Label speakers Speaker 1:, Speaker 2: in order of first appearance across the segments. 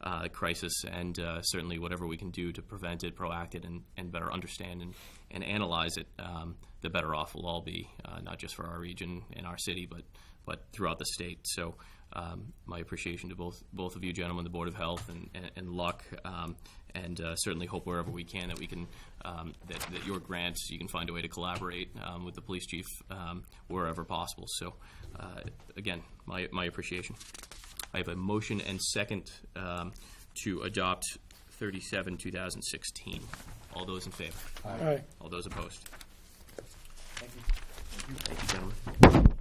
Speaker 1: uh, crisis, and uh, certainly whatever we can do to prevent it, proact it, and, and better understand and, and analyze it, um, the better off we'll all be, uh, not just for our region and our city, but but throughout the state. So um, my appreciation to both both of you gentlemen, the Board of Health and, and, and Luck, um, and uh, certainly hope wherever we can that we can um, that, that your grants you can find a way to collaborate um, with the police chief um, wherever possible. So uh, again, my my appreciation. I have a motion and second um, to adopt 37 2016. All those in favor?
Speaker 2: Aye.
Speaker 1: All those opposed? Thank you, gentlemen.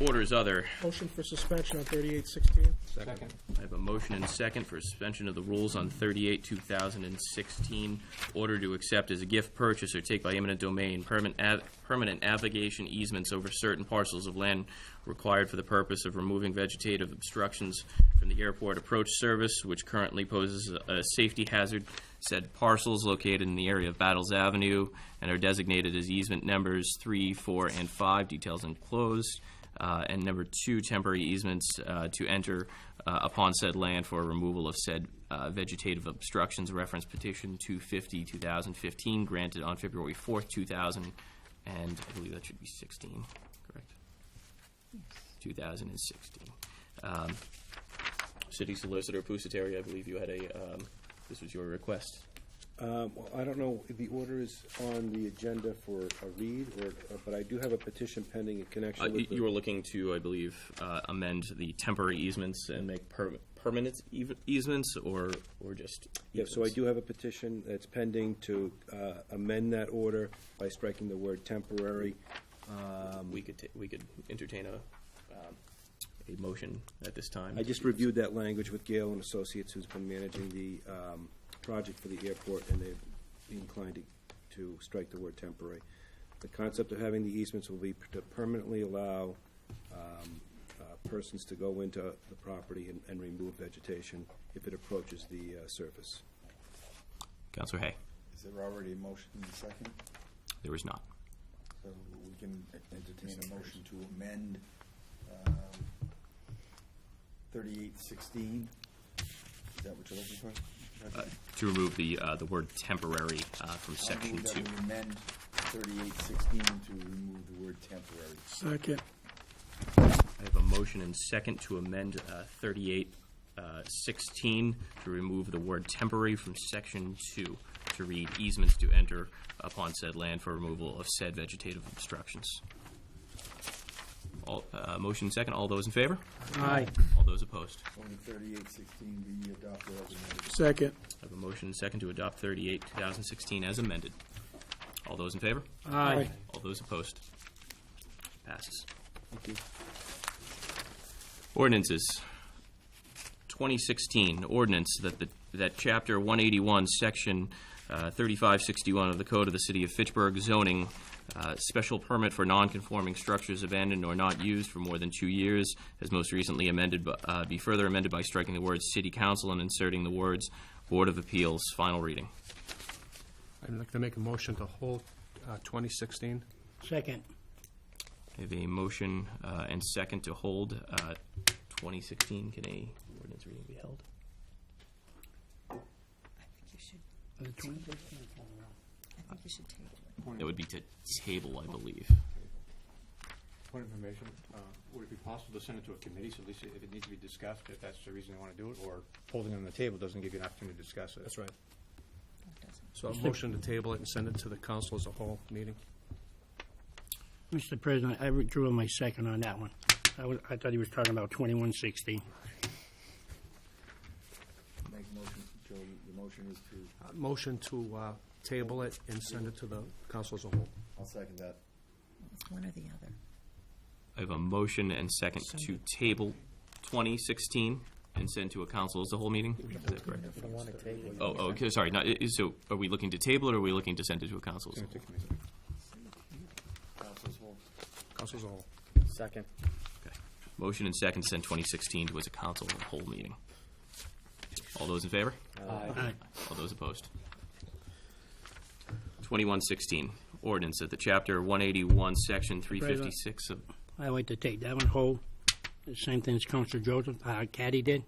Speaker 1: Orders other.
Speaker 2: Motion for suspension on thirty-eight sixteen.
Speaker 1: I have a motion and second for suspension of the rules on 38, 2016. Order to accept as a gift purchase or take by eminent domain permanent av- permanent navigation easements over certain parcels of land required for the purpose of removing vegetative obstructions from the airport approach service, which currently poses a a safety hazard. Said parcels located in the area of Battles Avenue and are designated as easement numbers 3, 4, and 5, details enclosed. Uh, And number two, temporary easements uh, to enter uh, upon said land for removal of said uh, vegetative obstructions, reference petition 250, 2015, granted on February 4th, 2000, and I believe that should be 16, correct? 2016. Um, City Solicitor Pusateri, I believe you had a, um, this was your request.
Speaker 3: Um, Well, I don't know, if the order is on the agenda for a read, or, uh, but I do have a petition pending in
Speaker 1: Uh,
Speaker 3: connection
Speaker 1: y-
Speaker 3: with the...
Speaker 1: You were looking to, I believe, uh, amend the temporary easements and make per- permanent eas- easements, or, or just?
Speaker 3: Yeah, so I
Speaker 1: easements?
Speaker 3: do have a petition that's pending to uh, amend that order by striking the word temporary.
Speaker 1: We could, ta- we could entertain a, um, a motion at this time.
Speaker 3: I just reviewed that language with Gale and Associates, who's been managing the um, project for the airport, and they've inclined to- to strike the word temporary. The concept of having the easements will be to permanently allow um, uh, persons to go into the property and- and remove vegetation if it approaches the uh, surface.
Speaker 1: Counselor Hay,
Speaker 4: Is there already a motion in the second?
Speaker 1: there is not.
Speaker 4: So we can entertain a motion to amend um, 3816? Is that what you're looking for?
Speaker 1: Uh, To remove the, uh, the word temporary uh, from
Speaker 4: I'll
Speaker 1: section
Speaker 4: move
Speaker 1: two.
Speaker 4: that we amend 3816 to remove the word temporary.
Speaker 2: Second.
Speaker 1: I have a motion and second to amend uh, 38, uh, 16 to remove the word temporary from section two, to read easements to enter upon said land for removal of said vegetative obstructions. All, uh, motion second, all those in favor?
Speaker 2: Aye.
Speaker 1: All those opposed?
Speaker 4: Only 3816 be adopted as amended.
Speaker 2: Second.
Speaker 1: I have a motion and second to adopt 38, 2016 as amended. All those in favor?
Speaker 2: Aye.
Speaker 1: All those opposed? Passes. Ordinances. 2016 ordinance that the, that Chapter 181, Section uh, 3561 of the Code of the City of Fitchburg zoning, uh, special permit for non-conforming structures abandoned or not used for more than two years, as most recently amended, bu- uh, be further amended by striking the words "City Council" and inserting the words "Board of Appeals." Final reading.
Speaker 5: I'd like to make a motion to hold uh, 2016.
Speaker 2: Second.
Speaker 1: I have a motion uh, and second to hold uh, 2016. Can a ordinance reading be held?
Speaker 6: I think you should,
Speaker 2: The twenty-
Speaker 6: I think you should take it.
Speaker 1: That would be to table, I believe.
Speaker 7: Point of information, uh, would it be possible to send it to a committee, so at least if it needs to be discussed, if that's the reason they want to do it, or holding it on the table doesn't give you an opportunity to discuss it?
Speaker 5: right.
Speaker 6: That doesn't-
Speaker 5: So a motion to table it and send it to the council as a whole meeting.
Speaker 8: Mr. President, I withdrew my second on that one. I was, I thought he was talking about twenty-one sixty.
Speaker 4: Make motion, Joe, the motion is to,
Speaker 5: Uh, Motion to uh, table it and send it to the council as a whole.
Speaker 4: I'll second that.
Speaker 6: It's one or the other.
Speaker 1: I have a motion and second to table 2016 and send to a council as the whole meeting? Is that correct? Oh, oh, okay, sorry, not, i- i- so are we looking to table it, or are we looking to send it to a council? as a whole?
Speaker 4: Council's whole.
Speaker 5: Council as a whole.
Speaker 9: Second.
Speaker 1: Okay. Motion and second to send 2016 to as a council as a whole meeting. All those in favor?
Speaker 8: Aye.
Speaker 1: All those opposed? 2116, ordinance at the chapter 181, section 356 of
Speaker 8: I like to take that one whole. The Same thing as Counselor Joseph, uh, Caddy did.